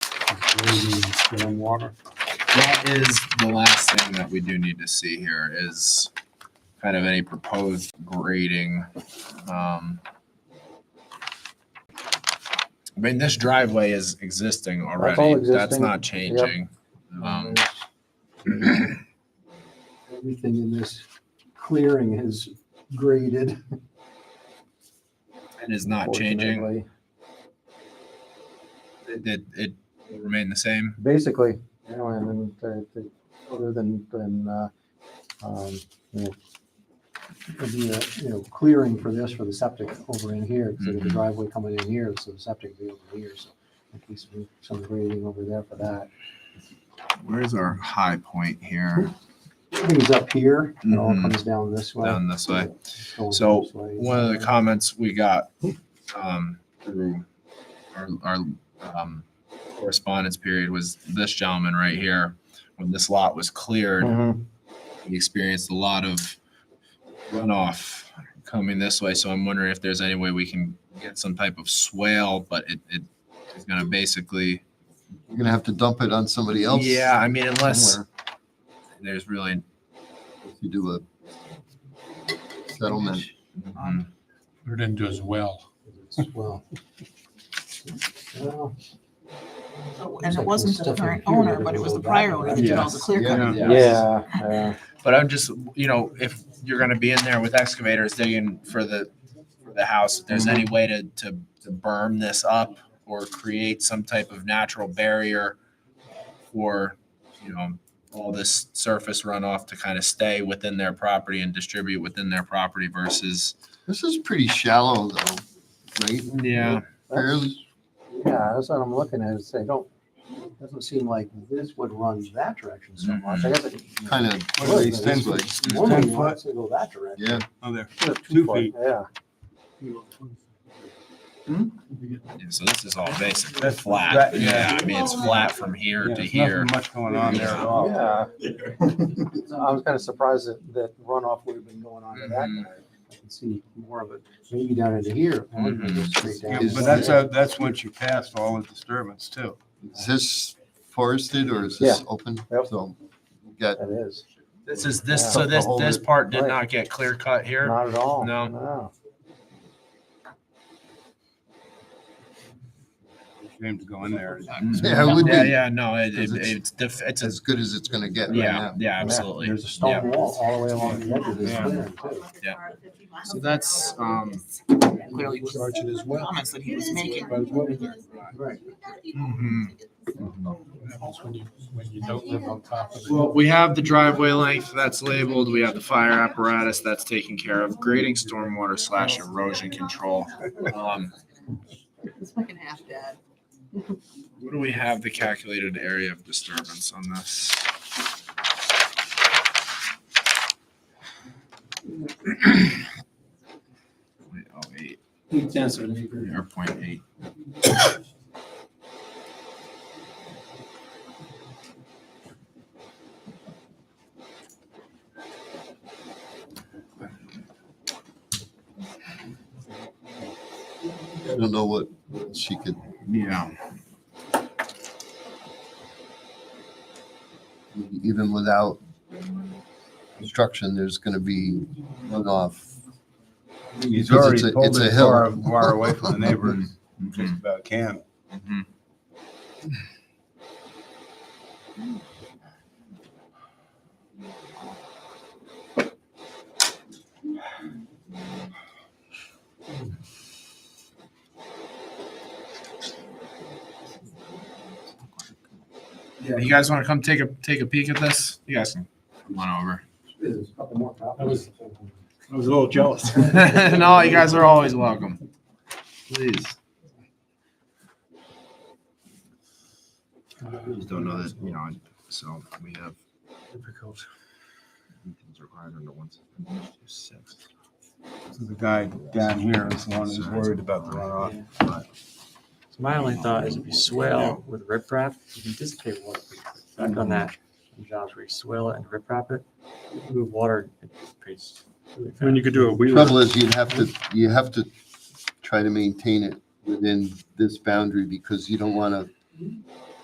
maybe stormwater. That is the last thing that we do need to see here is kind of any proposed grading. Um I mean, this driveway is existing already. That's existing. not changing. Um, Everything in this clearing is graded. It is not changing. fortunately. It, it, it will remain the same. Basically, you know, and then, the- the- other than, than, uh, um, you know, there'd be a, you know, clearing for this, for the septic over in here, because the Mhm. driveway coming in here, so the septic would be over here, so at least we- some grading over there for that. Where's our high point here? Everything's up here, and it all Mhm. comes down this way. Down this way. It's going So, this way. one of the comments we got um, through our, our um, correspondence period was this gentleman right here. When this lot was cleared, Mhm. he experienced a lot of runoff coming this way. So I'm wondering if there's any way we can get some type of swale, but it, it is going to basically. You're gonna have to dump it on somebody else. Yeah, I mean, unless somewhere there's really. If you do a settlement. mhm. Put it into his well. Well. Well, And it wasn't the current owner, but it was the prior owner that did all the clear cutting. Yeah. Yeah, yeah. But I'm just, you know, if you're gonna be in there with excavators digging for the, for the house, if there's any way to, to, to berm this up or create some type of natural barrier for, you know, all this surface runoff to kind of stay within their property and distribute within their property versus. This is pretty shallow though, right? Yeah. Fairly- Yeah, that's what I'm looking at, is I don't, doesn't seem like this would run that direction so much. I guess it. Kind of. Well, it's this 10 way. Normally 10 wants to go that direction. Yeah, Oh, there. Should have Two foot, feet. Yeah. Yeah, So this is all basically That's flat. right, yeah. Yeah, I mean, it's flat from here Yeah, to there's here. nothing much going on there at all. Yeah. So I was kind of surprised that, that runoff would have been going on to that. Mhm. guy. I can see more of it, maybe down into here. I wonder if it goes straight Yeah, down. Is- But that's, uh, that's once you pass all the disturbance too. is this forested or is this open? Yep. So, we got, That is, This is this, Yeah. so this, this part did Right. not get clear cut here. not at all. No. Shame to go in there. Yeah, it would Yeah, be. yeah, no, it, it, 'Cause it's- it's, def- it's, a- as good as it's gonna get right yeah, now. yeah, absolutely. There's a stone wall all the way along the edge of this Yeah. clearing too. So that's, um, Clearly was it as the comments that he was making. Mm-hmm. Right. Mm-hmm. When you, when you don't live on top of it. Well, we have the driveway length that's labeled, we have the fire apparatus that's taken care of, grading stormwater slash erosion control. Um, It's fucking half dead. What do we have the calculated area of disturbance on this? Point oh eight. Or point eight. I don't know what she could, Yeah. even without construction, there's gonna be runoff. He's Because already it's a- pulled it's a it hill. far, far away from the neighbors, just about can. Mhm. Yeah, you guys want to come take a take a peek at this? You guys can come on over. There's a couple more copies. I was a little jealous. no, you guys are always welcome. Please. Just don't know that, you know, so we have. Difficult. Things required under one. six. The guy down here is the one who's worried about the runoff. So My only thought is if you swale with riprap, you can dissipate water. pretty quick. Back Mm-hmm. on that, some jobs where you swale it and riprap it, you move water, it dissipates. really I mean, you fast. could do a Trouble wheeler. is you'd have to, you have to try to maintain it within this boundary because you don't wanna